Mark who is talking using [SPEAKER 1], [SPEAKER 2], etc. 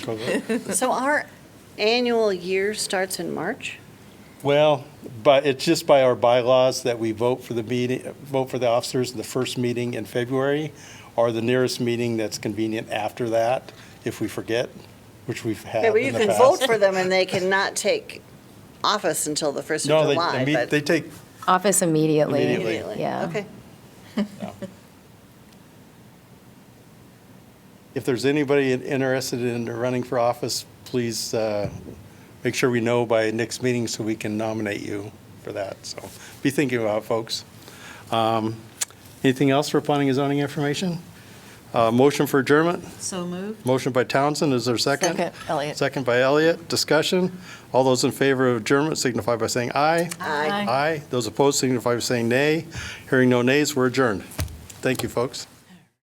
[SPEAKER 1] So our annual year starts in March?
[SPEAKER 2] Well, but it's just by our bylaws that we vote for the meeting, vote for the officers the first meeting in February or the nearest meeting that's convenient after that, if we forget, which we've had
[SPEAKER 1] Yeah, but
[SPEAKER 2] in
[SPEAKER 1] you
[SPEAKER 2] the
[SPEAKER 1] can
[SPEAKER 2] past.
[SPEAKER 1] vote for them and they cannot take office until the first
[SPEAKER 2] No,
[SPEAKER 1] of
[SPEAKER 2] they-
[SPEAKER 1] July,
[SPEAKER 2] they, meet-
[SPEAKER 1] but
[SPEAKER 2] they take,
[SPEAKER 3] Office immediately.
[SPEAKER 2] Immediately.
[SPEAKER 1] immediately.
[SPEAKER 3] Yeah.
[SPEAKER 1] Okay.
[SPEAKER 2] if there's anybody in- interested in running for office, please uh, make sure we know by next meeting so we can nominate you for that. So be thinking about it, folks. Um, Anything else for planning and zoning information? Uh, Motion for adjournment?
[SPEAKER 4] So moved.
[SPEAKER 2] Motion by Townsend, is there a second?
[SPEAKER 3] Second, Elliot.
[SPEAKER 2] Second by Elliot, discussion. All those in favor of adjournment signify by saying aye.
[SPEAKER 1] Aye.
[SPEAKER 2] Aye. Those opposed signify by saying nay. Hearing no nays, we're adjourned. Thank you, folks.